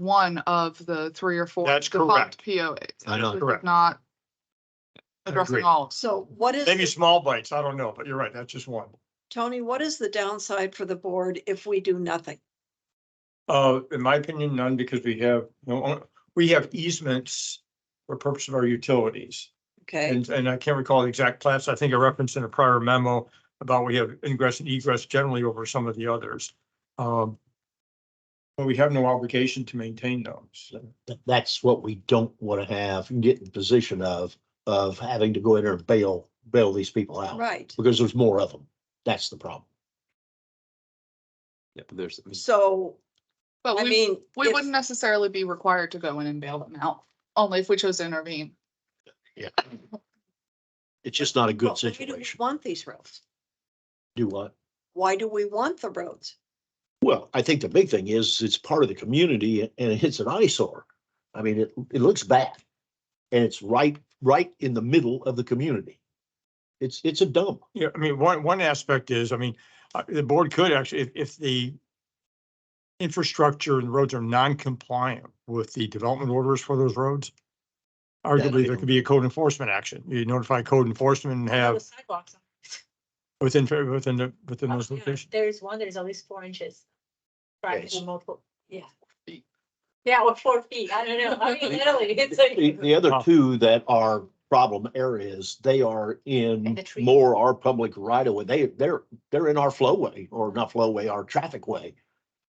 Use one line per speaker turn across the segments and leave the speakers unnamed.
one of the three or four.
That's
defunct
correct.
POAs.
I know.
This is
Correct.
Not
I
addressing
agree.
all. of them.
So what is,
Maybe
the-
small bites, I don't know, but you're right, that's just one.
Tony, what is the downside for the board if we do nothing?
Uh, in my opinion, none, because we have, no, uh, we have easements for purpose of our utilities.
Okay,
And, and I can't recall the exact plats, I think I referenced in a prior memo about we have ingress and egress generally over some of the others. Um, But we have no obligation to maintain those.
Th- That's what we don't want to have, get in the position of, of having to go in there and bail, bail these people out.
right.
Because there's more of them. That's the problem.
Yeah, but there's,
So,
But
I
we,
mean,
we
if-
wouldn't necessarily be required to go in and bail them out, only if we chose to intervene.
It's just not a
well,
good
why do we
situation.
want these roads?
Do what?
Why do we want the roads?
Well, I think the big thing is it's part of the community and it's an eyesore. I mean, it, it looks bad. And it's right, right in the middle of the community. It's, it's a dump.
Yeah, I mean, one, one aspect is, I mean, uh, the board could actually, if, if the infrastructure and roads are non-compliant with the development orders for those roads,
I
arguably there
don't
could be a code enforcement action. You notify code enforcement and have
sidewalks. on-
within, within the, within
oh,
those
yeah,
locations.
There's one that is at least four inches. Right,
Yes.
multiple, yeah.
Feet.
Yeah, or four feet, I don't know, I mean, literally, it's like.
The, the other
Oh.
two that are problem areas, they are
And
in
the trees.
more our public right of way. They, they're, they're in our flowway or not flowway, our traffic way.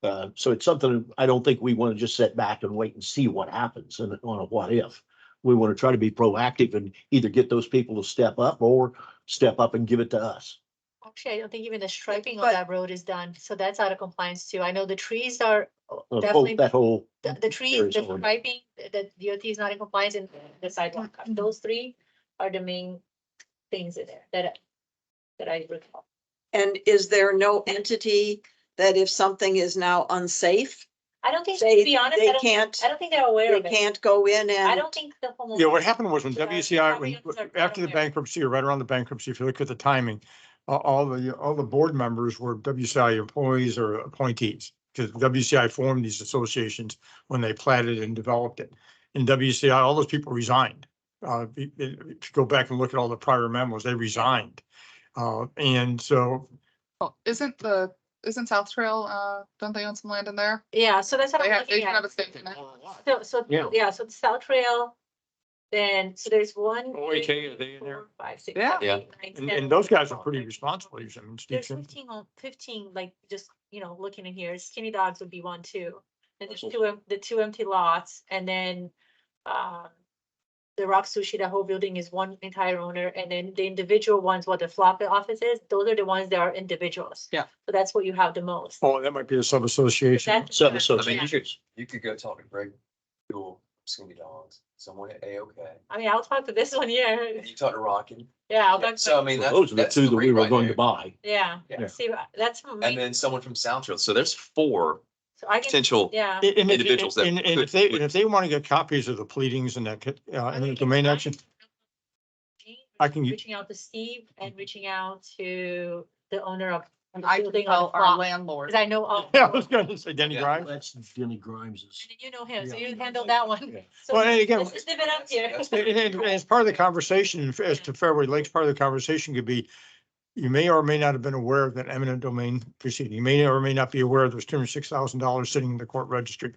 Uh, so it's something I don't think we want to just sit back and wait and see what happens and on a what if. We want to try to be proactive and either get those people to step up or step up and give it to us.
Actually, Oh, I don't think even the striping of
But-
that road is done, so that's out of compliance too, I know the trees are uh,
Uh, oh,
definitely,
That whole.
the, the trees,
area's
the
already-
striping, the the DOT is not in compliance and the sidewalk,
Mm-hmm.
those three are the main things in there that, I- that I recall.
And is there no entity that if something is now unsafe,
I don't think, to
they,
be honest, I
they
don't,
can't,
I don't think they're aware
they
of it,
can't go in
I
and,
don't think the homeowner.
Yeah, what happened was when
Yeah,
WCI, when,
probably observed
after the
somewhere.
bankruptcy or right around the bankruptcy, if you look at the timing, a- all the, all the board members were WCI employees or appointees. Because WCI formed these associations when they platted and developed it. And WCI, all those people resigned. Uh, if you- if you go back and look at all the prior memos, they resigned. Uh, and so
Oh, Isn't the, isn't South Trail, uh, don't they own some land in there?
Yeah, so that's what
They
I'm
have, they
looking
have a
at.
stake in it.
So, so,
Yeah.
yeah, so the South Trail, then, so there's one.
OAK,
three,
Oh, are they in there?
four, Five, six.
Yeah.
seven,
Yeah.
eight, nine,
And,
ten,
and those guys are
twelve,
pretty
thirteen.
responsible. I mean, Steve
There's
Kim-
fifteen, on- fifteen, like, just, you know, looking in here, skinny dogs would be one too. And there's two, em- the two empty lots, and then, um, the Rock Sushi, the whole building is one entire owner, and then the individual ones, what the flop office is, those are the ones that are individuals.
Yeah.
So that's what you have the most.
Oh, that might be a sub-association.
That's-
Sub
I mean,
association.
you could go talk to Greg, Jewel, Skinny Dogs, someone at AOK,
I mean, I'll talk to this one here,
and you talk to Rockin.
yeah, I'll talk to.
So I mean, that's.
Those are the
that's
two that we
three
were
right
going to
there.
buy.
Yeah,
Yeah.
see, uh, that's what
And
made,
then someone from South Trail. So there's four
so I can,
potential.
yeah.
And- and if-
Individuals that
And, and if
could-
they, and
would-
if they want to get copies of the pleadings and that, uh,
I'm
and
gonna
the
get
domain
mine.
action, I can, u-
Reaching out to Steve and reaching out to the owner of.
And
the
I can
building on the
tell our
block,
landlord.
Cause I know, all-
yeah, I
and
was gonna say Denny
Yeah.
Grimes.
That's Denny Grimes's.
you know him, so
Yeah.
you handle that one.
Yeah.
So
Well, and again-
let's just leave it up here.
That's-
And, and- and as part of the conversation, as to Fairway Lakes, part of the conversation could be, you may or may not have been aware of that eminent domain proceeding. You may or may not be aware there's two hundred six thousand dollars sitting in the court registry.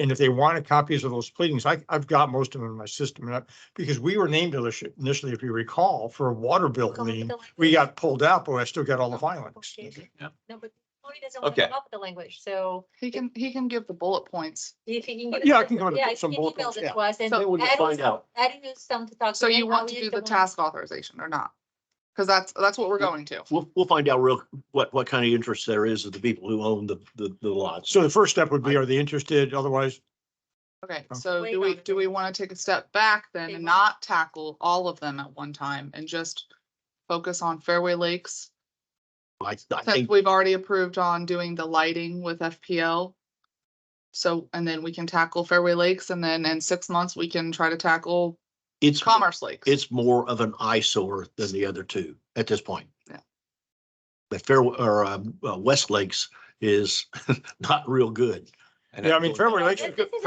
And if they wanted copies of those pleadings, I, I've got most of them in my system, and I- because we were named initially- initially, if you recall, for a water bill
Come up with
lien. Oh,
the language.
We got pulled out, but I still got all the filings.
Okay.
Yeah.
No, but Tony doesn't want
Okay.
to come up with the language, so
He can, he can give the bullet points.
if he can. get
Yeah, I
us-
can come up with
yeah, if
some
he can
bullet
email
points,
it
yeah.
to us, then
Then we'll just
adding
find
some-
out.
Adding us some to talk.
So
him,
you
how
want to
we
do
use
the
one-
task authorization or not? Cause that's, that's what we're going to.
We'll, we'll find out real, what, what kind of interest there is of the people who own the, the, the lots.
So the first step would be, are they interested? Otherwise,
Okay,
Okay.
so
Wait
do
on
we,
it.
do we want to take a step back then
They
and
want-
not tackle all of them at one time and just focus on Fairway Lakes?
I, I
Since
think,
we've already approved on doing the lighting with FPL. So, and then we can tackle Fairway Lakes and then in six months, we can try to tackle
it's,
Commerce Lakes.
it's more of an eyesore than the other two at this point.
Yeah.
The fair, or, um, uh, West Lakes is not real good.
And
yeah, I
I'm
mean,
going-
Fairway Lakes,
This is a